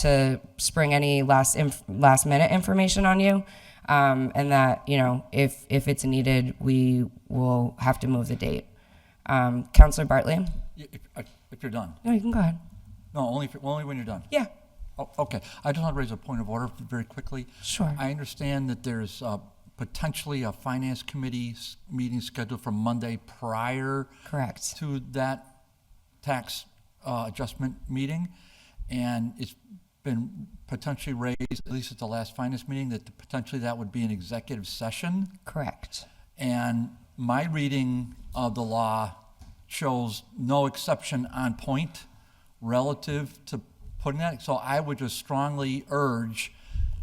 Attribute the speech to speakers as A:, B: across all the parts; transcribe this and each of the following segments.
A: to spring any last inf- last minute information on you, um, and that you know if if it's needed, we will have to move the date. Um, Counselor Bartley,
B: Y- If, I- if you're done,
A: no, you can go ahead.
B: no, only, if, only when you're done.
A: Yeah,
B: Oh, okay, I just want to raise a point of order very quickly.
A: Sure.
B: I understand that there's uh, potentially a finance committee s- meeting scheduled for Monday prior
A: correct.
B: to that tax uh, adjustment meeting, and it's been potentially raised, at least at the last finance meeting, that potentially that would be an executive session.
A: Correct.
B: And my reading of the law shows no exception on point relative to putting that. So I would just strongly urge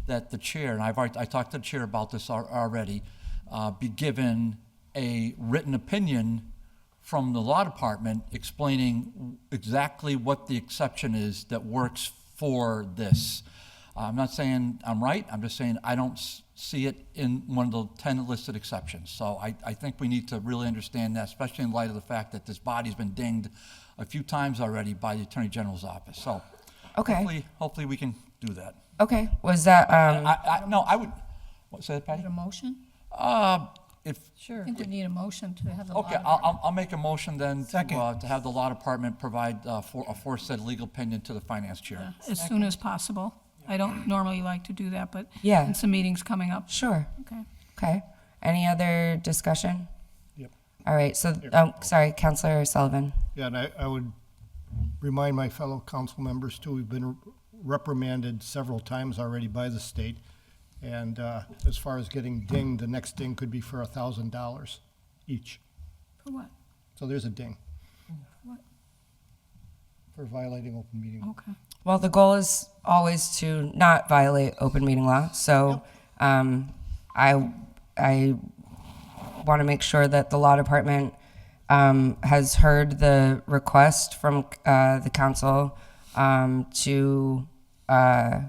B: that the chair, and I've already, I talked to the chair about this al- already, uh, be given a written opinion from the law department explaining exactly what the exception is that works for this. I'm not saying I'm right, I'm just saying I don't s- see it in one of the 10 listed exceptions. So I, I think we need to really understand that, especially in light of the fact that this body's been dinged a few times already by the Attorney General's office. So
A: Okay.
B: hopefully, hopefully we can do that.
A: Okay, was that um,
B: I, I, no, I would, what's that, Patty?
C: Need a motion?
B: Uh, If,
C: Sure. I think we need a motion to have the.
B: Okay,
C: law-
B: I'll, I'll- I'll make a motion then to, uh, to have the law department provide uh, for, a foresaid legal opinion to the finance chair.
D: as soon as possible. I don't normally like to do that, but
A: Yeah.
D: since the meeting's coming up,
A: sure?
D: okay.
A: Okay. Any other discussion? Yep. All right. So, oh, sorry, Counselor Sullivan.
E: Yeah, and I, I would remind my fellow council members too, we've been reprimanded several times already by the state. And, uh, as far as getting dinged, the next ding could be for a thousand dollars each.
D: For what?
E: So there's a ding.
D: What?
E: For violating open meeting. law.
D: Okay.
A: Well, the goal is always to not violate open meeting law. So, um, I I want to make sure that the law department um, has heard the request from uh, the council um, to uh,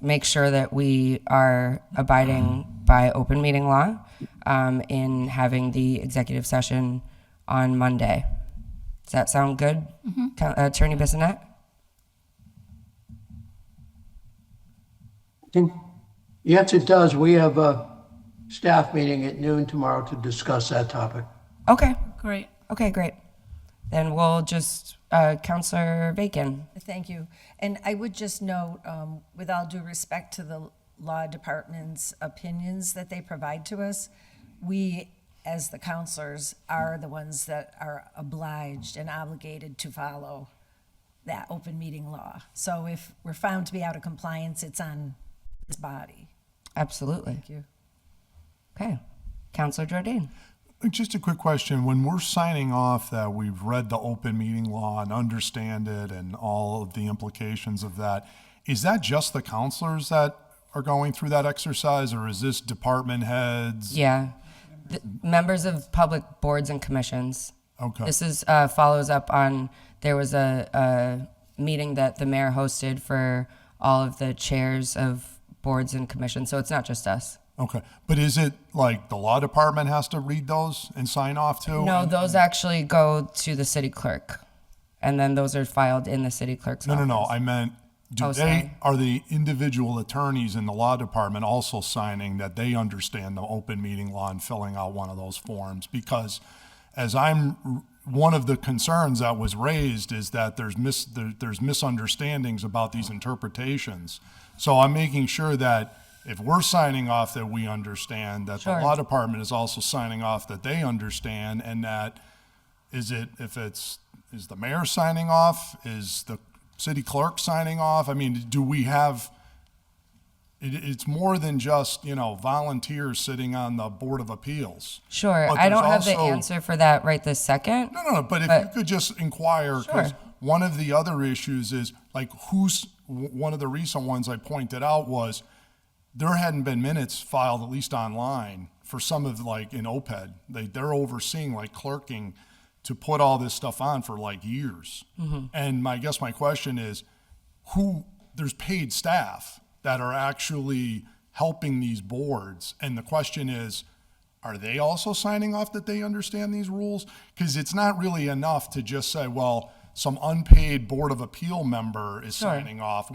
A: make sure that we are abiding by open meeting law um, in having the executive session on Monday. Does that sound good, Co- Attorney Bissonette?
F: think Yes, it does. We have a staff meeting at noon tomorrow to discuss that topic.
A: Okay.
D: Great.
A: Okay, great. Then we'll just, uh, Counselor Bacon.
G: Thank you. And I would just note, um, with all due respect to the law department's opinions that they provide to us, we, as the counselors, are the ones that are obliged and obligated to follow that open meeting law. So if we're found to be out of compliance, it's on this body.
A: Absolutely. Thank you. Okay. Counselor Jordan.
H: Just a quick question. When we're signing off that we've read the open meeting law and understand it and all of the implications of that, is that just the counselors that are going through that exercise or is this department heads?
A: Yeah. Th- Members of public boards and commissions.
H: Okay.
A: This is, uh, follows up on, there was a, a meeting that the mayor hosted for all of the chairs of boards and commissions, so it's not just us.
H: Okay. But is it like the law department has to read those and sign off too?
A: No, those actually go to the city clerk, and then those are filed in the city clerk's
H: No,
A: office.
H: no, no. I meant, do
A: Oh,
H: they,
A: sorry.
H: are the individual attorneys in the law department also signing that they understand the open meeting law and filling out one of those forms? Because as I'm, one of the concerns that was raised is that there's mis, there, there's misunderstandings about these interpretations. So I'm making sure that if we're signing off that we understand, that the
A: Sure.
H: law department is also signing off that they understand and that is it if it's is the mayor signing off is the city clerk signing off i mean do we have it, it's more than just you know volunteers sitting on the board of appeals
A: Sure,
H: But
A: I
H: there's
A: don't have the
H: also-
A: answer for that right this second.
H: no, no, no. But if you
A: But-
H: could just inquire, because
A: Sure.
H: one of the other issues is like who's w- one of the recent ones I pointed out was there hadn't been minutes filed at least online for some of like in OPED. They they're overseeing like clerking to put all this stuff on for like years. And my I guess my question is who there's paid staff that are actually helping these boards and the question is are they also signing off that they understand these rules? Because it's not really enough to just say, well, some unpaid Board of Appeal member is signing off.